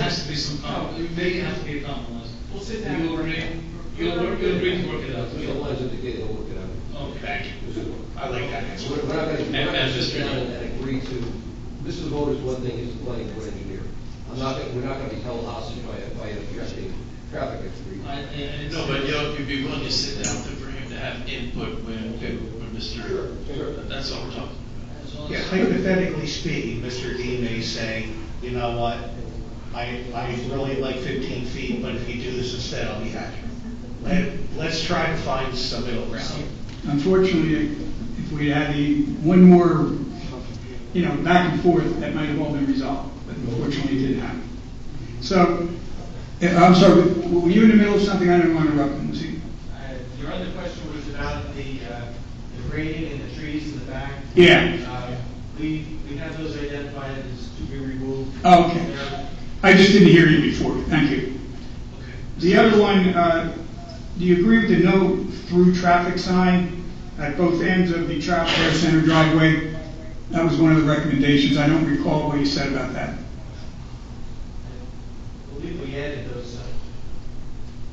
it oh, may have to be a compromise. We'll sit down. You'll bring, you'll, work- you'll bring to work it out. Mr. Lawrence indicated he'll work it out. Okay. I like that answer. We're we're not going to, we're not going And to sit Mr. down and agree to, this is voters one thing, he's the planning board engineer. I'm not, gonna- we're not going to be held hostage by, a- by a traffic, traffic I, agreement. and. No, but you know, if you'd be willing to sit down to- for him to have input when, when Mr. That's all we're talking Yeah, Hypothetically speaking, Mr. D may say, you know what, I, I really like fifteen feet, but if you do this instead, I'll be happy. Let, let's try to find some middle ground. Unfortunately, if we had the one more, you know, back and forth, that might have all been resolved, but unfortunately it didn't happen. So, eh, I'm sorry, were you in the middle of something? I didn't want to interrupt, you, see? Uh, Your other question was about the, uh, the grading and the trees in the back. Yeah. Uh, We, we have those identified as to be removed. Oh, okay. They're- I just didn't hear you before, thank you. about. Okay. The other one, uh, do you agree with the no through traffic sign at both ends of the Child Care Center driveway? That was one of the recommendations, I don't recall what you said about that. I believe we added those. uh,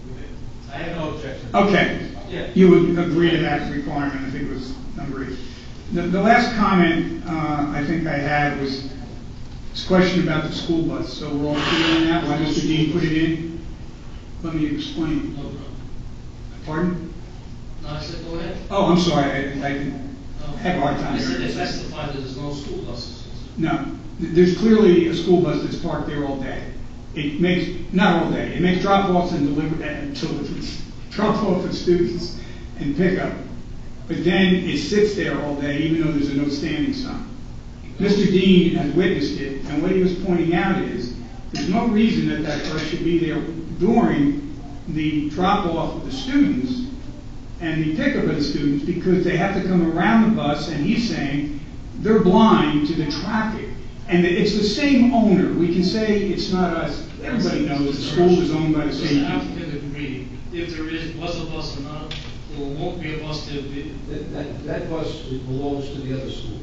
we- I have no objection. Okay, Yeah. you would agree to that requirement, I think it was number eight. The, the last comment, uh, I think I had was this question about the school bus, so we're all clear on that, why Mr. Dean put it in? Let me explain. No problem. Pardon? No, I said, go ahead. Oh. Oh, I'm sorry, I, I, No. Have a hard time I said, hearing. they testified that there's no school buses. no, there's clearly a school bus that's parked there all day. It makes, not all day, it makes drop-offs and deliver, uh, and deliveries, drop-off of students and pickup. But then it sits there all day, even though there's a no standing sign. Mr. Dean has witnessed it, and what he was pointing out is, there's no reason that that bus should be there during the drop-off of the students and the pickup of the students, because they have to come around the bus, and he's saying, they're blind to the traffic. And it's the same owner, we can say it's not us, everybody knows the school is owned by the Does same the people. applicant agree, if there is, was a bus or not, or won't be a bus, there be, That, that, that bus belongs to the other school.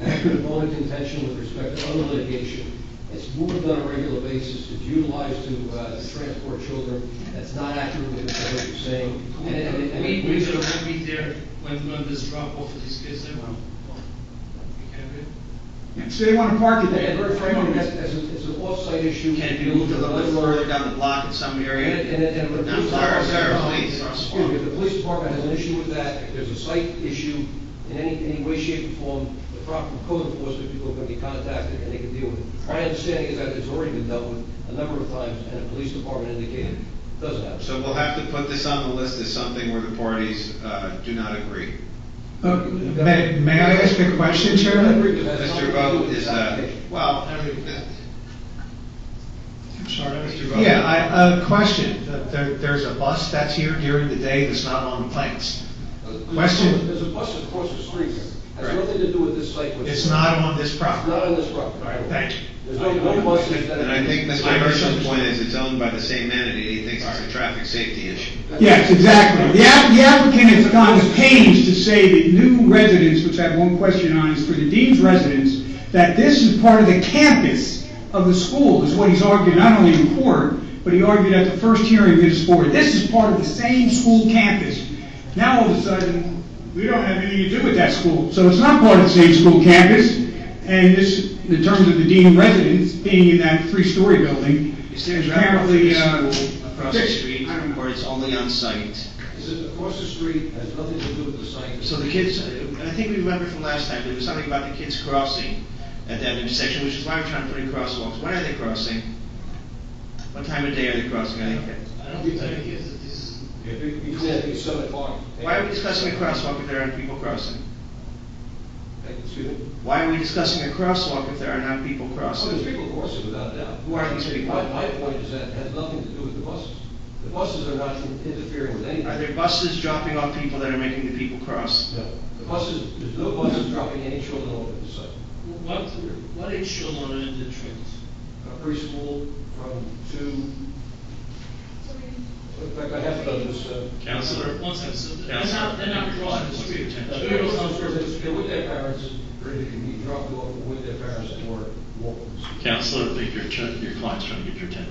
And that's been a bone of contention with respect to other litigation. It's moved on a regular basis, it's utilized to, uh, to transport children. That's not accurate with what you're saying. And- and- and- We, we should all be there when, when this drop off of these kids there. You can't agree? Yeah, So they wanna park it And- there. And very frankly, that's, that's an, it's an off-site issue. Can it be moved a little bit further down the block in some area? And, and, and if the Now, police Sarah, department. Sarah, please. Excuse me, if the police department has an issue with that, if there's a site issue in any, any way, shape, or form, the proper code enforcement people are gonna be contacted and they can deal with it. My understanding is that it's already been dealt with a number of times, and the police department indicated it doesn't happen. So we'll have to put this on the list as something where the parties uh, do not agree. Uh, May, may I ask a question, Chairman? Mr. Bo is, uh, well, I'm sorry, Mr. Vogel. Yeah, I, a question, there, there's a bus that's here during the day that's not on the plans. Question. There's a bus across the street, there. has Correct. nothing to do with this site. It's not on this It's property. not on this property. Thank you. There's no, no buses that. and I think Mr. I Hirsch's misunderstood. point is it's owned by the same entity, he thinks it's a traffic safety issue. Yes, exactly. The app- the applicant has gone to pains to say that new residents, which I have one question on, is for the dean's residents, that this is part of the campus of the school, is what he's argued, not only in court, but he argued at the first hearing that is for, this is part of the same school campus. Now, all of a sudden, we don't have anything to do with that school, so it's not part of the same school campus, and this, in terms of the dean residence being in that three-story building, Is there a drop off apparently, uh... across the fixed. street, I don't know. or it's only on site? This is across the street, has nothing to do with the site. So the kids, uh, I think we remember from last time, there was something about the kids crossing at that intersection, which is why we're trying to put in crosswalks. When are they crossing? What time of day are they crossing? Are they- I don't think that is, that this is. You can't be seven o'clock. Why are we discussing a crosswalk if there aren't people crossing? Excuse me? Why are we discussing a crosswalk if there are not people Oh, there's crossing? people crossing without a doubt. Who are these people? My, my point is that it has nothing to do with the buses. The buses are not interfering with Are anything. there buses dropping off people that are making the people cross? No, the buses, there's no buses dropping any children off at the site. What, what age children are in the trains? A preschool from two, in fact, I have done this, uh. Counselor? One second, so they're not, they're not crossing the street. Two-year-olds on first. They're with their parents, or they can be dropped off with their parents or walk. Counselor, I think your, ch- your client's trying to get your attention.